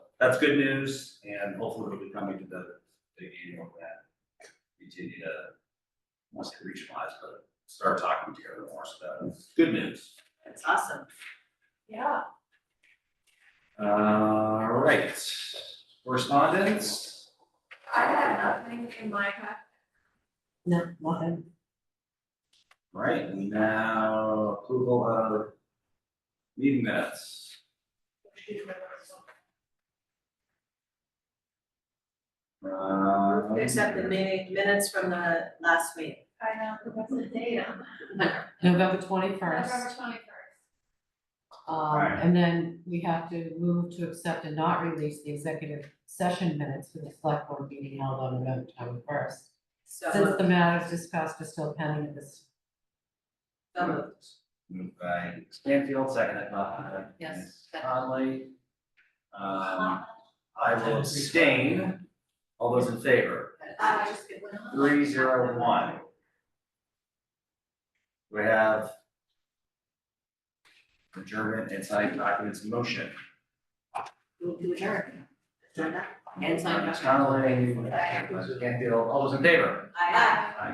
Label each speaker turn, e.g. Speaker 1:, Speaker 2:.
Speaker 1: that's good news, and hopefully we'll be coming to the big annual event. Continue to, must regionalize, but start talking to everyone more, so that's good news.
Speaker 2: That's awesome. Yeah.
Speaker 1: All right, correspondence?
Speaker 2: I have nothing in my head.
Speaker 3: No, nothing.
Speaker 1: All Right, and now approval of meeting minutes. Uh,
Speaker 2: Except the meeting minutes from the last week.
Speaker 4: I know, but what's the date on that?
Speaker 3: November twenty-first,
Speaker 4: November twenty-first.
Speaker 3: um, and then we have to move to accept and not release the executive session minutes for the select board meeting held on November twenty-first. Since
Speaker 2: So,
Speaker 3: the matters discussed are still pending at this,
Speaker 2: so moved.
Speaker 1: Moved by Stanfield, seconded by.
Speaker 3: Yes,
Speaker 1: Ms.
Speaker 3: second.
Speaker 1: Conley. Um, I will abstain. All those in favor,
Speaker 2: I was just gonna-
Speaker 1: three zero one. We have adjournment and signed documents in motion.
Speaker 2: Move to adjourn. Adjourn that. And sign
Speaker 1: Ms. Conley, Ms. Stanfield, all those in favor?
Speaker 2: Aye.